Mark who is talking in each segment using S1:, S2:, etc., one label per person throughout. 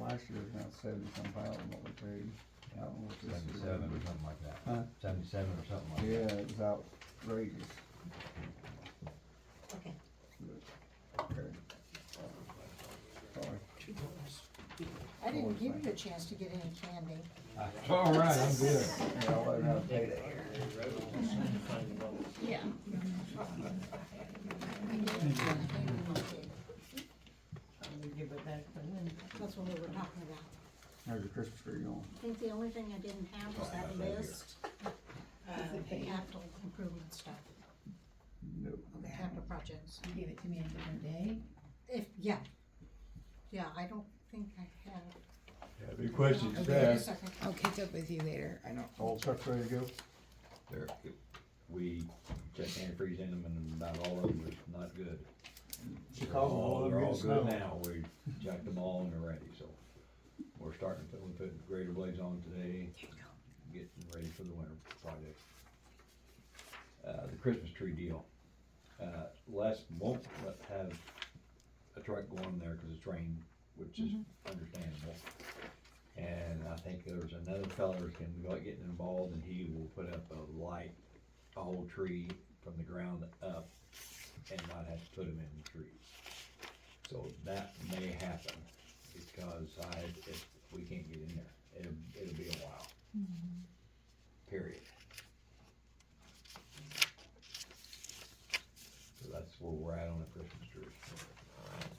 S1: last year was around seventy some thousand what we paid. I don't know what this year is.
S2: Seventy-seven or something like
S1: Huh?
S2: that, seventy-seven or something like that.
S1: Yeah, it was outrageous.
S3: Okay.
S1: But, okay. Sorry.
S3: I didn't give you a chance to get any candy.
S2: I- All right, I'm good.
S1: Yeah, I'll let her have to pay that.
S3: Yeah.
S4: I'm gonna give it back to Lynn.
S3: That's what we were talking about.
S1: There's a Christmas tree on.
S3: I think the only thing I didn't have was that list, uh, the capital improvement stuff,
S1: Nope.
S3: the capital projects.
S4: You gave it to me a different day.
S3: If, yeah, yeah, I don't think I have.
S5: Any questions,
S3: Okay, wait a
S5: staff?
S3: second.
S6: I'll catch up with you later. I don't.
S1: All trucks ready to go?
S2: There, we checked antifreeze in them and about all of them was not good.
S5: Chicago, all
S2: They're
S5: over
S2: all
S5: good
S2: good
S5: snow.
S2: now, we jacked them all and they're ready, so. We're starting to put, we put grader blades on today, getting ready for the winter project. Uh, the Christmas tree deal, uh, Les won't let- have a truck going there because it's rained, which is understandable. And I think there's another fella that's gonna be like getting involved and he will put up a light, a whole tree from the ground up and not have to put them in the trees. So that may happen, because I, if, we can't get in there, it'll, it'll be a while. Period. So that's where we're at on the Christmas tree.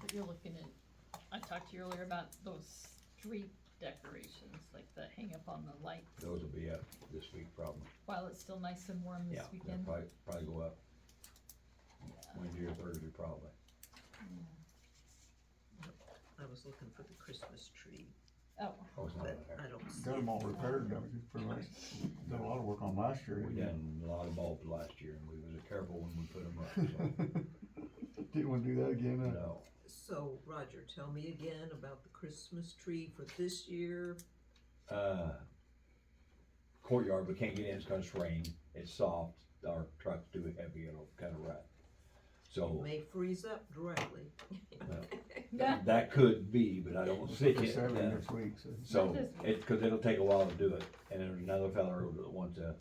S7: But you're looking at, I talked to you earlier about those street decorations, like the hang up on the light,
S2: Those will be up this week probably.
S7: while it's still nice and warm
S2: Yeah,
S7: this
S2: they'll
S7: weekend.
S2: probably, probably go up Wednesday or Thursday probably.
S8: I was looking for the Christmas tree,
S7: Oh,
S2: Oh, it's not
S8: but
S2: up there.
S8: I don't see
S1: Got
S8: it.
S1: them all repaired, don't you, pretty much? Did a lot of work on last year.
S2: We done a lot of bulbs last year and we was careful when we put them up, so,
S1: Didn't wanna do that again, huh?
S2: no.
S8: So, Roger, tell me again about the Christmas tree for this year.
S2: uh, courtyard, we can't get in, it's gonna rain, it's soft, our truck's too heavy, it'll kinda rut.
S8: It
S2: So,
S8: may freeze up directly.
S7: yeah,
S2: that could be, but I don't see
S1: It's
S2: it.
S1: Saturday
S2: uh,
S1: next week, so.
S2: So, it, cause it'll take a while to do it, and there's another fella who wants to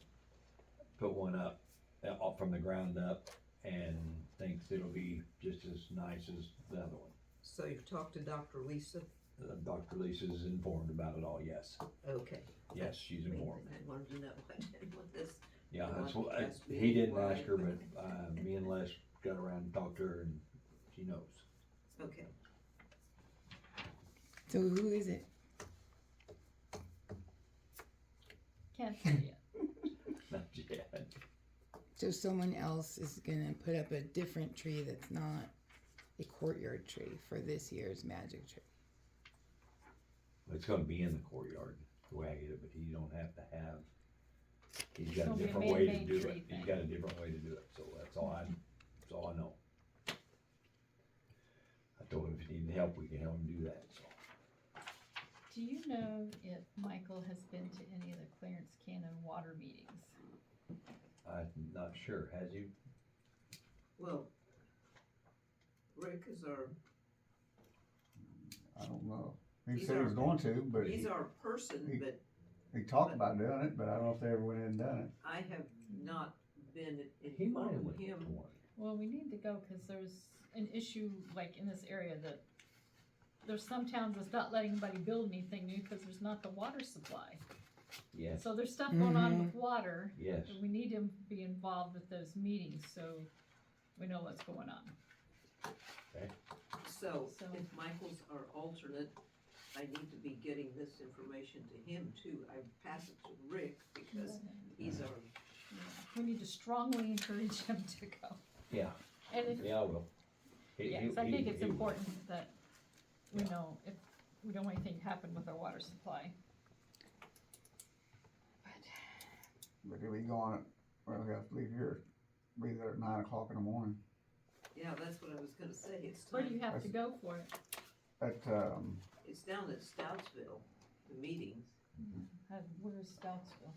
S2: put one up, uh, off from the ground up, and thinks it'll be just as nice as the other one.
S8: So you've talked to Dr. Lisa?
S2: Uh, Dr. Lisa's informed about it all, yes,
S8: Okay.
S2: yes, she's informed.
S8: I wanted to know, I didn't want this.
S2: Yeah,
S8: You
S2: that's
S8: want
S2: what,
S8: to
S2: I-
S8: ask me
S2: he didn't
S8: why?
S2: ask her, but, uh, me and Les got around and talked to her and she knows.
S8: Okay,
S6: So who is it?
S7: can't see it.
S2: Not yet.
S6: So someone else is gonna put up a different tree that's not a courtyard tree for this year's magic tree.
S2: It's gonna be in the courtyard, the way I get it, but he don't have to have, he's
S7: It's
S2: got a
S7: gonna be a
S2: different way to
S7: man-made
S2: do
S7: tree
S2: it. He's
S7: thing.
S2: got a different way to do it, so that's all I, that's all I know. I told him if he needed help, we can help him do that, so.
S7: Do you know if Michael has been to any of the Clarence Cannon water meetings?
S2: I'm not sure, has you?
S8: well, Rick is our,
S1: I don't know. He
S8: He's
S1: said he was
S8: our-
S1: going to, but
S8: he's
S1: he,
S8: our person, but
S1: he talked about doing it, but I don't know if they ever went in and done it.
S8: I have not been
S2: He might have
S8: informed
S2: went to
S8: him.
S2: one.
S7: Well, we need to go, cause there's an issue like in this area that there's some towns that's not letting anybody build anything new, cause there's not the water supply.
S2: Yes,
S7: So there's stuff going on
S6: Mhm.
S7: with water.
S2: yes.
S7: We need to be involved with those meetings, so we know what's going on.
S8: So
S7: So-
S8: if Michael's our alternate, I need to be getting this information to him too. I pass it to Rick because he's our,
S7: We need to strongly encourage him to go.
S2: Yeah,
S7: And if,
S2: yeah, I will. He- he-
S7: yes, I think
S2: he-
S7: it's
S2: he will.
S7: important that we
S2: Yeah.
S7: know if, we don't want anything to happen with our water supply.
S1: But if we go on it, well, we have to leave here, be there at nine o'clock in the morning.
S8: yeah, that's what I was gonna say. It's
S7: Where do you
S8: time,
S7: have to go for it?
S1: At, um,
S8: it's down at Stoutsville, the meetings.
S7: Uh, Where's Stoutsville?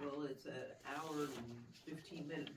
S8: Well, it's an hour and fifteen minute